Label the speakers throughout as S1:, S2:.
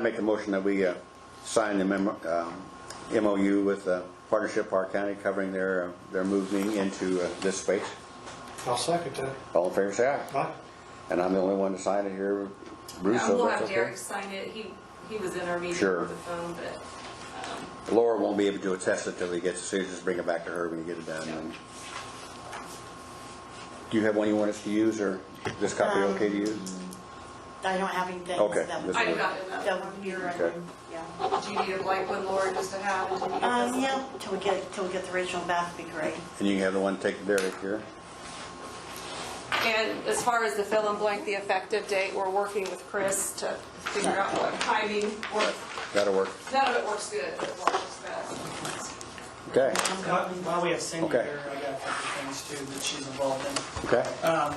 S1: Make the motion that we uh, sign the memo- um, MOU with uh, Partnership Park County covering their, uh, their moving into uh, this space.
S2: I'll second that.
S1: All in favor, say aye.
S2: Aye.
S1: And I'm the only one to sign it here. Bruce,
S3: Yeah,
S1: so
S3: We'll
S1: that's
S3: have
S1: okay.
S3: Derek sign it. He, he was in our meeting
S1: Sure.
S3: over the phone, but.
S1: Laura won't be able to attest it till he gets, so you just bring it back to her when you get it done. and- Do you have one you want us to use, or this copy
S3: Um,
S1: okay to use?
S4: I don't have anything.
S1: Okay,
S4: that-
S1: this
S3: I
S1: works.
S3: got enough.
S4: That one here, I
S1: Okay.
S4: mean, yeah.
S3: Do you need a blank one, Laura, just to have? Did you need this
S4: Um,
S3: one?
S4: yeah, till we get, till we get the original back, would be great.
S1: And you can have the one take to Derek here.
S3: And as far as the fill in blank, the effective date, we're working with Chris to figure out what timing works.
S1: That'll work.
S3: None of it works good, but what works best.
S1: Okay,
S5: While while we have Cindy
S1: Okay.
S5: here, I got a couple things too that she's involved in.
S1: okay.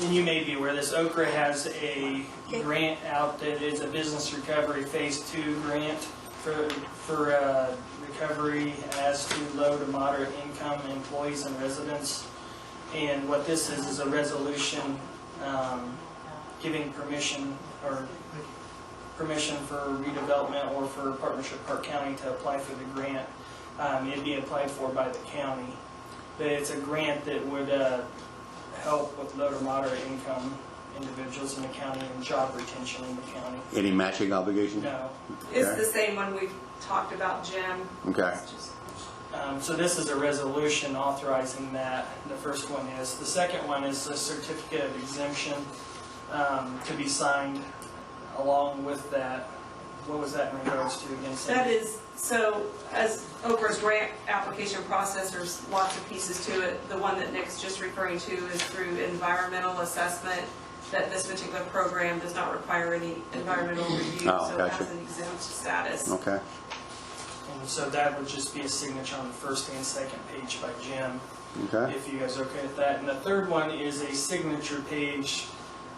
S5: And you may be aware, this Okra has a grant out that is a business recovery phase two grant for, for uh, recovery as to low to moderate income employees and residents. And what this is, is a resolution um, giving permission or permission for redevelopment or for Partnership Park County to apply for the grant. Um, It'd be applied for by the county. But it's a grant that would uh, help with low to moderate income individuals in the county and job retention in the county.
S1: Any matching obligation?
S5: No.
S3: It's
S1: Okay.
S3: the same one we've talked about, Jim.
S1: Okay.
S3: It's just-
S5: Um, So this is a resolution authorizing that, the first one is. The second one is a certificate of exemption um, to be signed along with that. What was that in regards to again? Cindy?
S3: That is, so as Okra's grant application process, there's lots of pieces to it. The one that Nick's just referring to is through environmental assessment, that this particular program does not require any environmental review,
S1: Oh,
S3: so it has
S1: gotcha. Oh.
S3: an exempt status.
S1: Okay.
S5: And so that would just be a signature on the first and second page by Jim.
S1: Okay,
S5: if you guys are okay with that. And the third one is a signature page,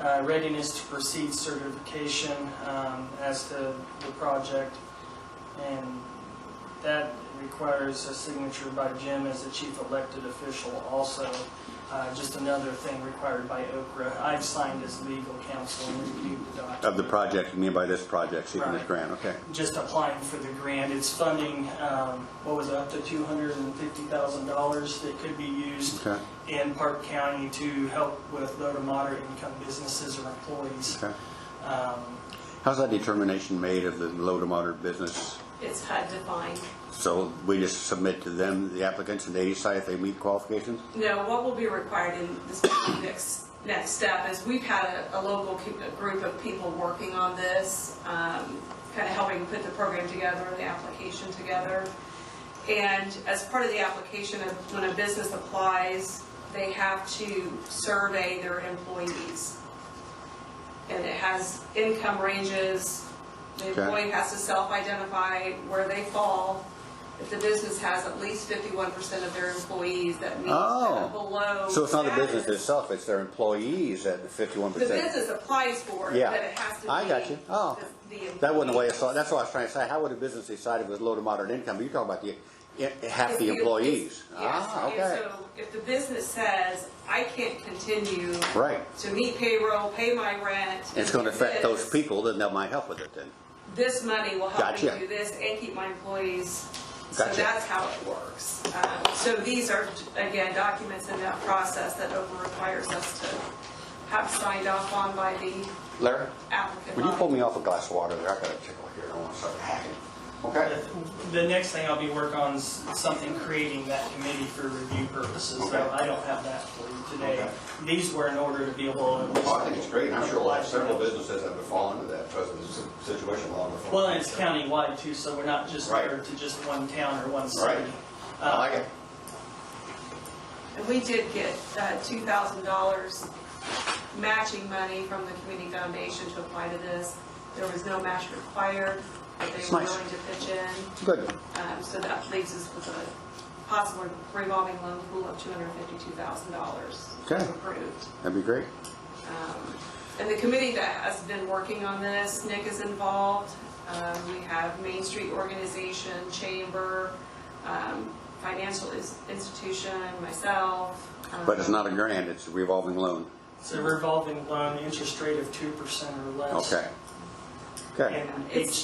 S5: uh, readiness to proceed certification um, as to the project. And that requires a signature by Jim as the chief elected official also. Uh, Just another thing required by Okra. I've signed as legal counsel and reviewed the document
S1: of the project, you mean by this project, seeking this
S5: Right.
S1: grant, okay.
S5: just applying for the grant. It's funding, um, what was it, up to $250,000 that could be used
S1: Okay.
S5: in Park County to help with low to moderate income businesses or employees.
S1: Okay.
S5: Um,
S1: How's that determination made of the low to moderate business?
S3: It's HUD defined.
S1: So we just submit to them, the applicants, and they decide if they meet qualifications?
S3: No, what will be required in this next, next step is we've had a, a local co- a group of people working on this, um, kind of helping put the program together and the application together. And as part of the application, of when a business applies, they have to survey their employees. And it has income ranges, the
S1: Okay.
S3: employee has to self-identify where they fall. If the business has at least fifty-one percent of their employees that meet
S1: Oh.
S3: that below.
S1: So it's not the business
S3: standards,
S1: itself, it's their employees at fifty-one
S3: The
S1: percent?
S3: business applies for it,
S1: Yeah.
S3: but it has to be.
S1: I got you. Oh.
S3: the- the
S1: That wasn't the way I
S3: employees.
S1: saw, it. that's what I was trying to say, how would a business decide if it was low to moderate income? You're talking about the, i- half
S3: If
S1: the
S3: you-
S1: employees?
S3: if- Yes,
S1: Ah,
S3: and
S1: okay,
S3: so if the business says, I can't continue
S1: right.
S3: to meet payroll, pay my rent.
S1: It's gonna
S3: do
S1: affect those
S3: this,
S1: people, then they might help with it then.
S3: This money will help
S1: Gotcha.
S3: me do this and keep my employees. So
S1: Gotcha.
S3: that's how it works. Um, So these are, again, documents in that process that OPA requires us to have signed off on by the
S1: Larry,
S3: applicant.
S1: would you pull me off a glass of water there? I got a tickle here, I want to start hacking. Okay.
S5: The next thing I'll be working on is something creating that committee for review purposes,
S1: Okay.
S5: though I don't have that for you today.
S1: Okay.
S5: These were in order to be able to.
S1: Well, I think it's great, and I'm sure like several businesses that would fall into that present s- situation along the fall.
S5: Well, and it's countywide too, so we're not just
S1: Right.
S5: there to just one town or one
S1: Right.
S5: city. Um,
S1: I like it.
S5: uh,
S3: And we did get uh, $2,000 matching money from the community foundation to apply to this. There was no match required, but they
S1: It's
S3: were
S1: nice.
S3: willing to pitch in.
S1: Good.
S3: Um, So that leaves us with a possible revolving loan pool of $252,000
S1: Okay.
S3: approved.
S1: That'd be great.
S3: And the committee that has been working on this, Nick is involved. Um, We have Main Street Organization, Chamber, um, Financial Ins- Institution, myself. um,
S1: But it's not a grant, it's a revolving loan.
S5: It's a revolving loan, interest rate of 2% or less.
S1: Okay. Okay.
S5: And
S3: It's-
S5: each